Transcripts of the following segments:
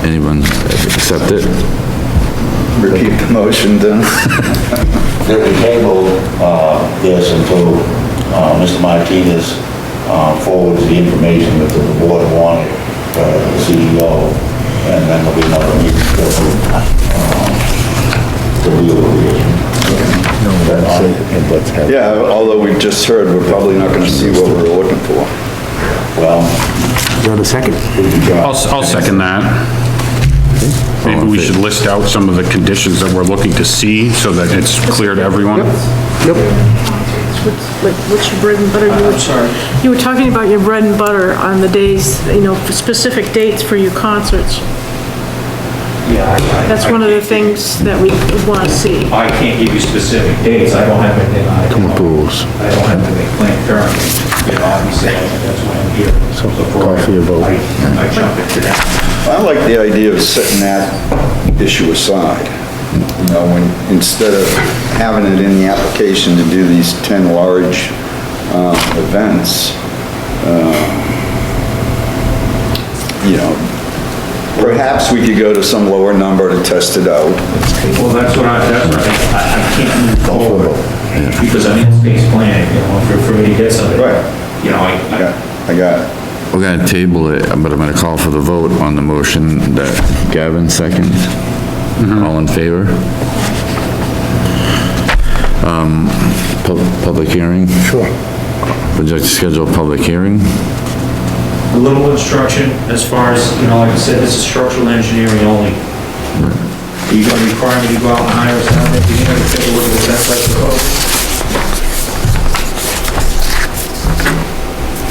Anyone accept it? Repeat the motion then. That we table, uh, this until, uh, Mr. Martinez, uh, forwards the information that the board wanted, uh, the CEO, and then there'll be another meeting to, uh, to deal with it. Let's have. Yeah, although we just heard, we're probably not gonna see what we're looking for. Well, You're the second. I'll, I'll second that. Maybe we should list out some of the conditions that we're looking to see so that it's clear to everyone. Like, what's your bread and butter? You were- You were talking about your bread and butter on the days, you know, for specific dates for your concerts. Yeah, That's one of the things that we want to see. I, I can't give you specific dates, I don't have anything, I don't. I don't have anything planned currently, you know, obviously, that's why I'm here. So coffee or vote? I jump into that. I like the idea of setting that issue aside. You know, when, instead of having it in the application to do these 10 large um, events, um, you know, perhaps we could go to some lower number to test it out. Well, that's what I, that's what I, I I can't move forward, because I'm in space planning, you know, for, for me to get something. Right. You know, I, I. Yeah, I got it. We're gonna table it, but I'm gonna call for the vote on the motion that Gavin seconds. All in favor? Um, pub- public hearing? Sure. Would you like to schedule a public hearing? a little instruction as far as, you know, like I said, this is structural engineering only. Are you gonna require me to go out and hire a sound engineer to take a look at the best like the code?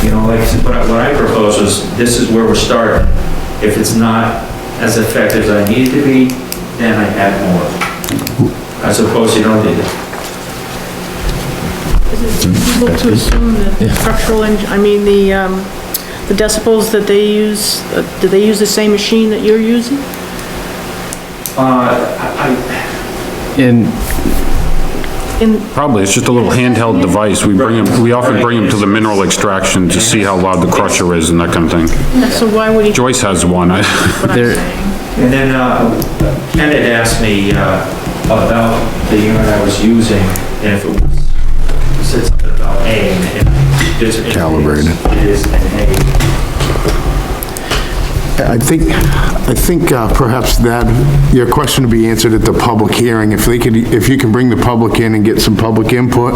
You know, like, but what I propose is, this is where we're starting. If it's not as effective as I need it to be, then I add more. I suppose you don't need it. Is it Mm-hmm. reasonable to assume that structural, eng- I mean, the, um, the decibels that they use, uh, do they use the same machine that you're using? Uh, I, And In, probably, it's just a little handheld device. We bring them, we often bring them to the mineral extraction to see how loud the crusher is and that kind of thing. so why would he, Joyce has one. I- what I'm saying? And then uh, Ken had asked me uh, about the unit I was using, and if it was, said something about A, and it is... Calibrated. It is an A. I think, I think uh, perhaps that, your question would be answered at the public hearing. If they could, if you can bring the public in and get some public input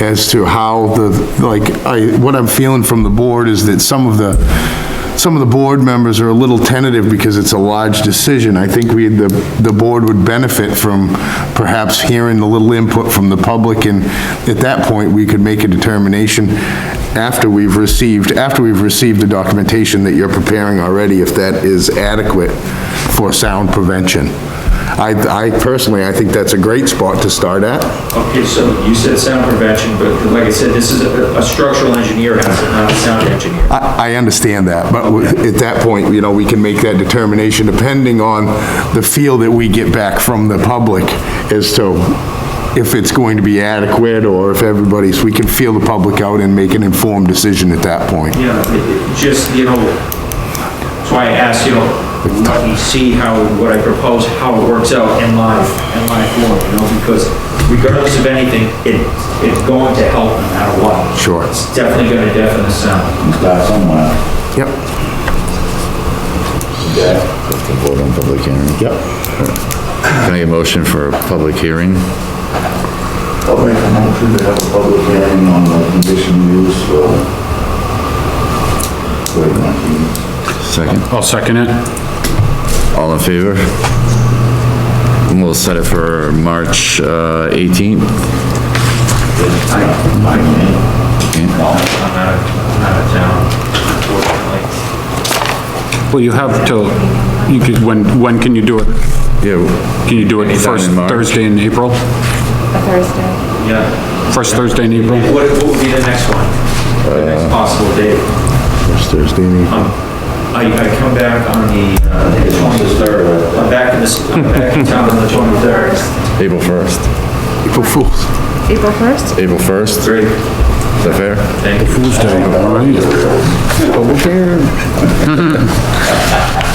as to how the, like, I, what I'm feeling from the board is that some of the, some of the board members are a little tentative because it's a large decision. I think we, the, the board would benefit from perhaps hearing a little input from the public, and at that point, we could make a determination after we've received, after we've received the documentation that you're preparing already, if that is adequate for sound prevention. I, I personally, I think that's a great spot to start at. Okay, so you said sound prevention, but like I said, this is a a structural engineer has it, not a sound engineer. I, I understand that, but w- at that point, you know, we can make that determination depending on the feel that we get back from the public as to if it's going to be adequate or if everybody's, we can feel the public out and make an informed decision at that point. You know, it- it just, you know, that's why I asked, you know, let me see how, what I propose, how it works out in live, in live form, you know, because regardless of anything, it, it's going to help no matter what. Sure. It's definitely gonna deafen the sound. start somewhere. Yep. Vote on public hearing? Yep. Can I get a motion for a public hearing? I'll make a motion to have a public hearing on the condition use for, for Martinez. Second? I'll second it. All in favor? And we'll set it for March uh, 18th? I, I mean, no, I'm out of, I'm out of town, unfortunately. Well, you have till, you could, when, when can you do it? Yeah. Can you do it Anytime first in March. Thursday in April? a Thursday. Yeah. First Thursday in April? What, what would be the next one? The next possible date? Um, I, I come back on the uh, the 23rd, I'm back in this, I'm back in town on the 23rd. April 1st. April Fools. April 1st? April 1st? Great, Is that fair? thank you. Tuesday, all right.